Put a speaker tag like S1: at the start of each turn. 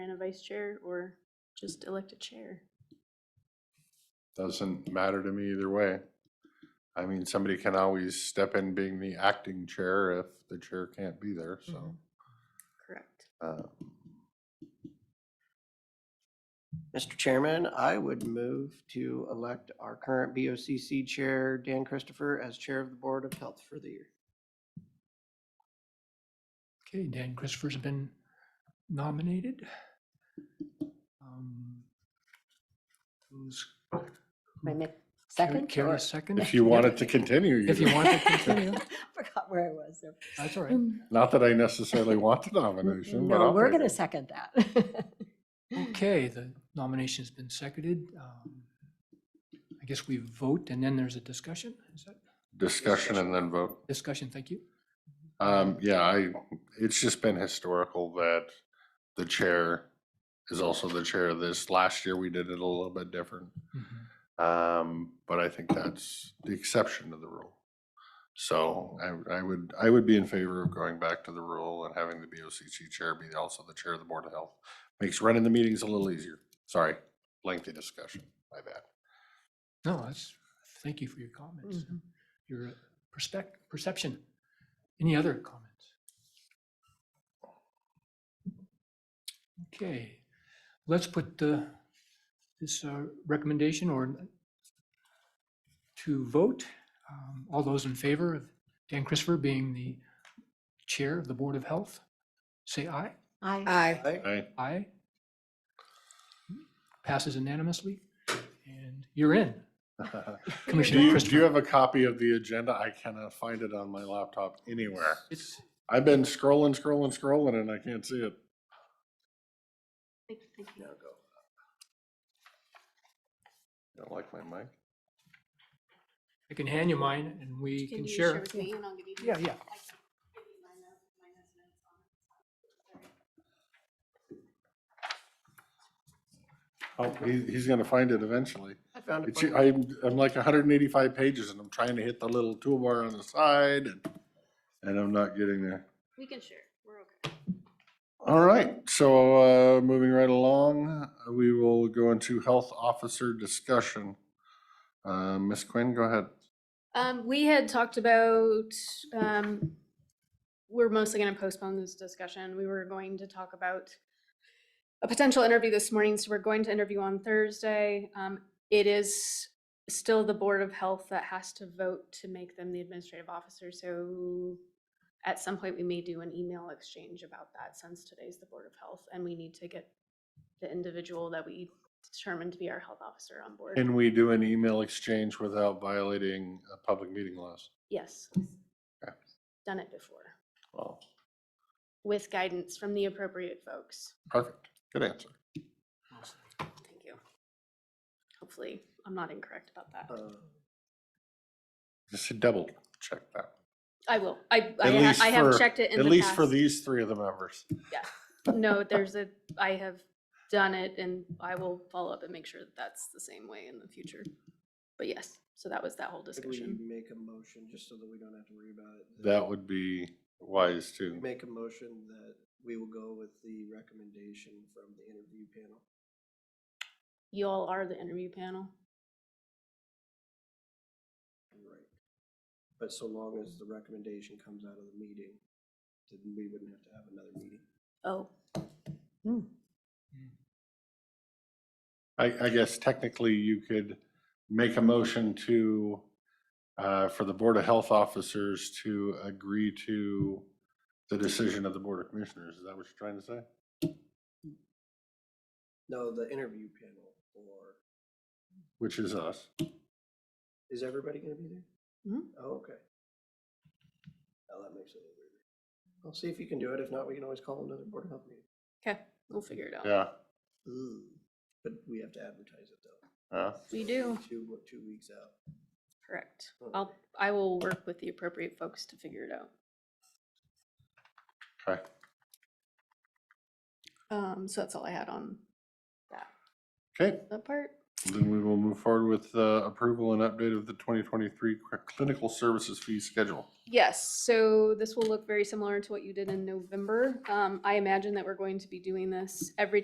S1: vice chair or just elect a chair.
S2: Doesn't matter to me either way. I mean, somebody can always step in being the acting chair if the chair can't be there, so.
S3: Mhm.
S1: Correct.
S2: uh,
S3: Mr. Chairman, I would move to elect our current BOCC Chair, Dan Christopher, as Chair of the Board of Health for the year.
S4: Okay, Dan Christopher's been nominated. Um, Who's?
S5: My
S4: who-
S5: next second?
S4: Carrie
S5: or-
S4: second?
S2: If you want it to continue.
S4: If you
S2: can.
S4: want to continue,
S5: Forgot where I was. there.
S4: that's all right.
S5: Mm,
S2: Not that I necessarily want the nomination, but
S5: No,
S2: I'll
S5: we're
S2: take
S5: going to
S2: it.
S5: second that.
S4: Okay, the nomination's been seconded. Um, I guess we vote and then there's a discussion. Is that
S2: Discussion and then vote.
S4: discussion? Thank you.
S2: Um, yeah, I, it's just been historical that the chair is also the chair of this. Last year, we did it a little bit different.
S4: Mhm.
S2: Um, but I think that's the exception to the rule. So I, I would, I would be in favor of going back to the rule and having the BOCC chair be also the chair of the Board of Health. Makes running the meetings a little easier. Sorry, lengthy discussion, my bad.
S4: No, that's, thank you for your comments,
S5: Mhm.
S4: your uh, perspec- perception. Any other comments? Okay, let's put the, this uh, recommendation or to vote. Um, All those in favor of Dan Christopher being the chair of the Board of Health, say aye.
S5: I,
S1: Aye.
S2: Aye.
S4: Aye. Passes unanimously, and you're in.
S2: Do
S4: Commissioner
S2: you, do you
S4: Christopher.
S2: have a copy of the agenda? I cannot find it on my laptop anywhere.
S4: It's,
S2: I've been scrolling, scrolling, scrolling, and I can't see it. Don't like my mic?
S4: I can hand you mine and we can share.
S1: with me and I'll give you?
S4: Yeah, yeah.
S2: Oh, he, he's gonna find it eventually.
S3: I found it.
S2: It's,
S3: for you.
S2: I'm, I'm like hundred and eighty-five pages and I'm trying to hit the little toolbar on the side and, and I'm not getting there.
S1: We can share. We're okay.
S2: All right, so, uh, moving right along, we will go into health officer discussion. Uh, Ms. Quinn, go ahead.
S1: Um, we had talked about, um, we're mostly gonna postpone this discussion. We were going to talk about a potential interview this morning, so we're going to interview on Thursday. Um, it is still the Board of Health that has to vote to make them the administrative officer, so at some point, we may do an email exchange about that since today's the Board of Health, and we need to get the individual that we determined to be our health officer on board.
S2: Can we do an email exchange without violating uh, public meeting laws?
S1: Yes. Done it before,
S2: Oh,
S1: with guidance from the appropriate folks.
S2: perfect. Good answer.
S1: Thank you. Hopefully, I'm not incorrect about that.
S3: Uh,
S2: Just double check that.
S1: I will. I, I
S2: At
S1: ha-
S2: least
S1: I have
S2: for-
S1: checked it in the
S2: At
S1: past.
S2: least for these three of the members.
S1: No, there's a, I have done it and I will follow up and make sure that that's the same way in the future. But yes, so that was that whole
S3: Could we
S1: discussion.
S3: make a motion, just so that we don't have to worry about it?
S2: That would be wise too.
S3: Make a motion that we will go with the recommendation from the interview panel.
S1: You all are the interview panel.
S3: Right. But so long as the recommendation comes out of the meeting, then we wouldn't have to have another meeting.
S1: Oh,
S2: I, I guess technically you could make a motion to, uh, for the Board of Health officers to agree to the decision of the Board of Commissioners. Is that what you're trying to say?
S3: No, the interview panel, or
S2: Which is us.
S3: is everybody gonna be there?
S1: Mhm.
S3: Oh, okay. Now that makes it a little weirder. I'll see if you can do it. If not, we can always call another board of health meeting.
S1: okay, we'll figure it out.
S2: Yeah.
S3: But we have to advertise it though.
S2: yeah.
S1: We do,
S3: Two, wo- two weeks out.
S1: correct.
S3: Oh.
S1: I'll, I will work with the appropriate folks to figure it out.
S2: Okay.
S1: Um, so that's all I had on that,
S2: Okay.
S1: that part.
S2: Then we will move forward with uh, approval and update of the 2023 cl- clinical services fee schedule.
S1: Yes, so this will look very similar to what you did in November. Um, I imagine that we're going to be doing this every